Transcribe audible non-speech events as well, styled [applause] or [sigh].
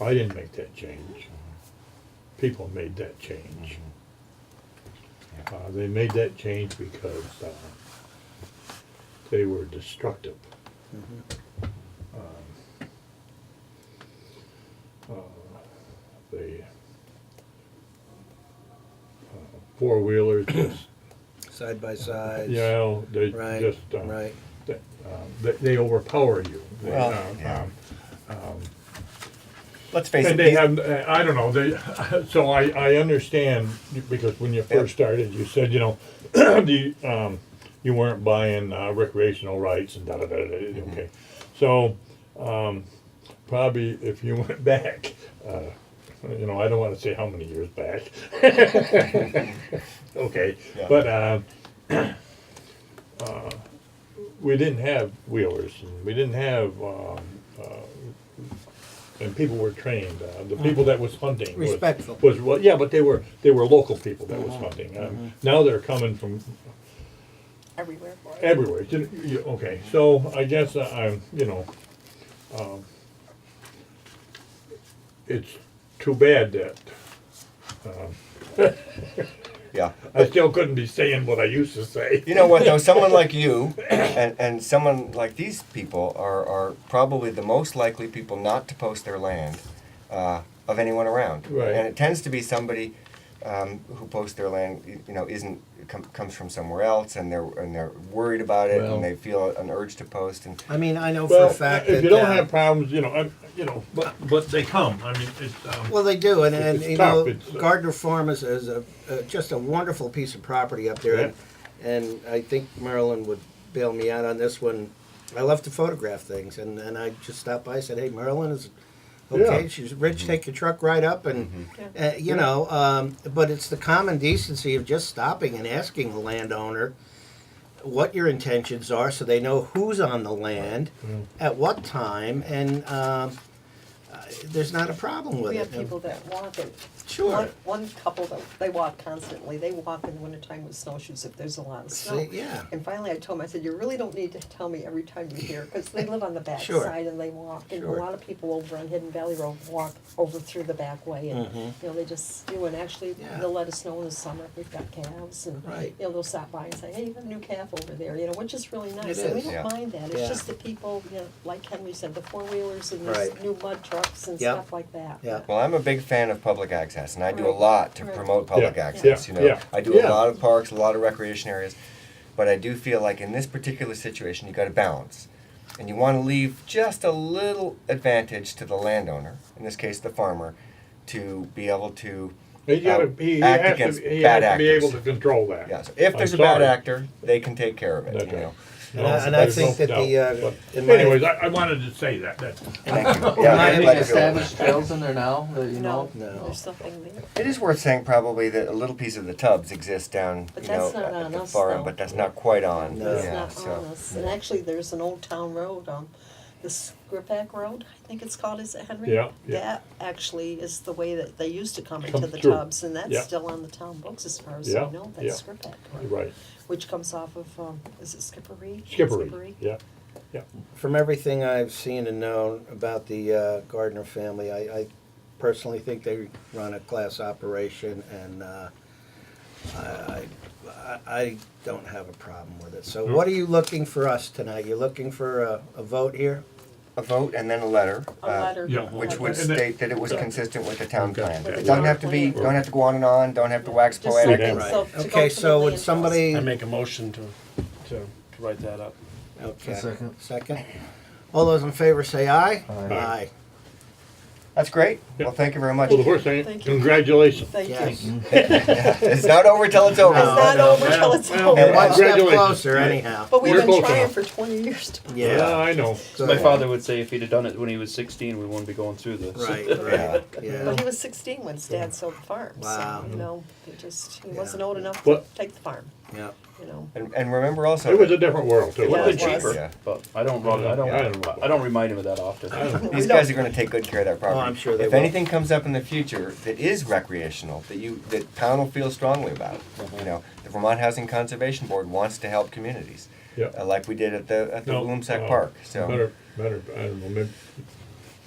I didn't make that change. People made that change. Uh, they made that change because, uh, they were destructive. Um, uh, They, uh, four-wheelers just, Side by sides. you know, they Right, just, uh, right. that, um, that they overpower you. They, Well, um, yeah. um, Let's face it. And they these- have, uh, I don't know, they, [laughs] so I, I understand, because when you first started, you said, you know, [clears throat] the, um, you weren't buying uh, recreational rights and da da da da, da, Mm-hmm. okay. So, um, probably if you [laughs] went back, uh, you know, I don't wanna say how many years back. [laughs] Okay, Yeah. but, uh, [clears throat] uh, we didn't have wheelers, and we didn't have, um, and people were trained. Uh, Mm-hmm. the people that was hunting was- Respectful. was, well, yeah, but they were they were local people that Mm-hmm. was hunting. Um, Now they're coming from everywhere. everywhere. You- you- okay, so I guess I'm you know, um, it's too bad that Yeah. I still couldn't be saying what I used to say. You know what though? Someone like you and, and someone like these people are, are probably the most likely people not to post their land uh, of anyone around. Right. And it tends to be somebody um, who posts their land, y- you know, isn't com- comes from somewhere else, and they're and they're worried about it, Well- and they feel an urge to post. And I mean, I know well, for a fact if that you don't uh, have problems, you know, i you know, but but they come. I mean, it's um, Well, they do, and, and It's you tough, know, it's, uh, Gardner Farm is, is a, uh, just a wonderful piece of property up there, and, and I think Marilyn would bail me out on this one. I love to photograph things, and, and I just stopped by and said, "Hey, Marilyn is okay. Yeah. Mm-hmm. She's rich. Take your truck right up, and Yeah. uh, you know." Um, but it's the common decency of just stopping and asking the landowner what your intentions are, so they know who's on the land, at what time, and. Um, uh, there's not a problem with We it. have people that walk it. Sure. One, one couple that, they walk constantly, they walk in the wintertime with snowshoes if there's a lot of snow. See, yeah. And finally I told them, I said, you really don't need to tell me every time you're here, because they live on the back Sure. side and they walk. And a Sure. lot of people over on Hidden Valley Road walk over through the back way and, you know, they just, you know, and actually Mm-hmm. Yeah. they'll let us know in the summer if we've got calves and, Right. you know, they'll stop by and say, hey, you have a new calf over there, you know, which is really nice. It And we is. don't Yeah. mind that. Yeah. It's just the people, you know, like Henry said, the four wheelers and these Right. new mud trucks and Yep. stuff like that. Yeah. well, I'm a big fan of public access, and I do a Right. lot to Right. promote public Yeah. access. Yeah. You know, Yeah. I do a Yeah. lot of parks, a lot of recreation areas, but I do feel like in this particular situation, you got to balance, and you want to leave just a little advantage to the landowner, in this case, the farmer, to be able to. he gotta, uh, he, he act has against to, he bad has to be actors. able to control that. Yeah, so if I'm there's a bad sorry. actor, they can take care of it. That's you right. know. And I- and I there's think no that the, doubt. uh, But in my- anyways, I, I wanted to say that. that Yeah, I I'd have Any like to feel that. established trails in there now that you know? No, of? No. there's nothing there. It is worth saying probably that a little piece of the tubs exists down, But you know, that's not at on the us, far end, though. but that's not quite on. No. It's yeah, not so. on us. And actually, there's an old town road, um, the Skripak Road, I think it's called, is it Henry? Yeah, yeah. That actually is the way that they used to come into Come the through. tubs, and Yeah. that's still on the town books as far as Yeah, I know, yeah. that's Skripak Road. right. Which comes off of, um, is it Skippery? Skippery. Yeah. Yeah. From everything I've seen and known about the uh, Gardner family, I, I personally think they run a class operation, and uh, I, I, I- I don't have a problem with it. So, what are you looking for us tonight? You're looking for a, a vote here? A vote and then a letter. A uh, letter. yeah, Which would would And then- state that it was consistent with the town Okay. plan. With It the doesn't town have to be, plan. don't have to go on and on, don't have to wax Just something, poetic. Right. so to go Okay. to the So, would land trust. somebody? I make a motion to, to, to write that up. okay. A second. Second. All those in favor say aye. Aye. aye. That's great. Well, thank you very much. Well, the first thing, Thank you. congratulations. Thank you. Yes. It's It's not over till it's over. No. not over till it's Well, And over, one step Congratulations. closer, anyhow. but we've We're been both on. trying for twenty years to. Yeah, Yeah. I know. So- My father would say if he'd have done it when he was 16, we wouldn't be going through this. [laughs] Right. Yeah. Right. Yeah. Well, he was 16 when his dad sold the farm. Wow. So, you know, it just, he Yeah. wasn't old enough Well- to take the farm, Yeah. you know. And, and remember also. It was a that different world too. It would have been Yeah, it was. cheaper, Yeah. but I don't. Run, I don't. Yeah, I don't- I don't remind him of that often. These guys are gonna take good care of that property. Oh, I'm sure they If will. anything comes up in the future that is recreational, that you, that town will feel strongly about, Mm-hmm. you know, the Vermont Housing Conservation Board wants to help communities. Yeah. uh, Like we did at the, at the No, Oh. Bloomsack uh, Park, so. Better, better, I don't know, maybe,